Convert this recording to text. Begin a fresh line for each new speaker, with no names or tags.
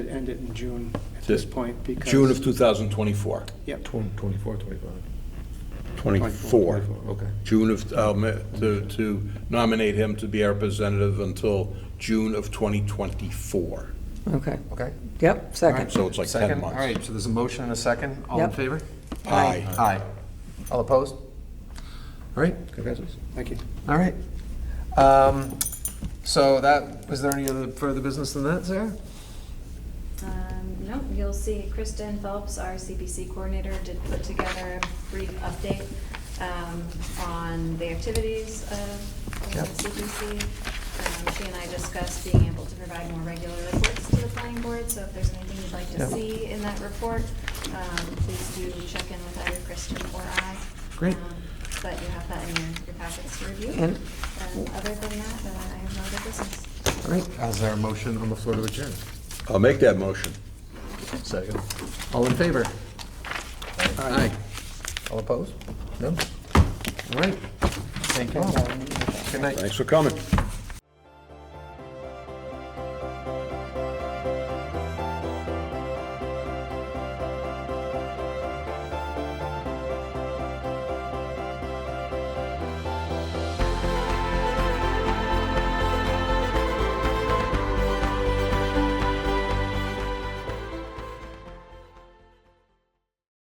end it in June at this point because.
June of 2024.
Yep,
24, 25.
24.
24, Okay.
June of, um, to to nominate him to be our representative until June of 2024.
Okay,
Okay.
yep, second.
So it's like 10
Second, all
months.
right, so there's a motion and a second, all in
Yep.
favor?
Aye.
Aye. All opposed? All right,
Congratulations.
thank you.
all right. Um, So that, was there any other further business than that, Sarah?
Um, No, you'll see Kristen Phelps, our CPC coordinator, did put together a brief update um, on the activities of the
Yep.
CPC. Um, She and I discussed being able to provide more regular reports to the planning board, so if there's anything you'd like to
Yep.
see in that report, um, please do check in with either Kristen or I.
Great.
Um, But you have that in your your packets to review.
And-
And other than that, uh, I have no other business.
All right, is there a motion on the floor to adjourn?
I'll make that motion.
Second. All in favor? Aye. All opposed? No? All right, thank you all. Good night.
Thanks for coming.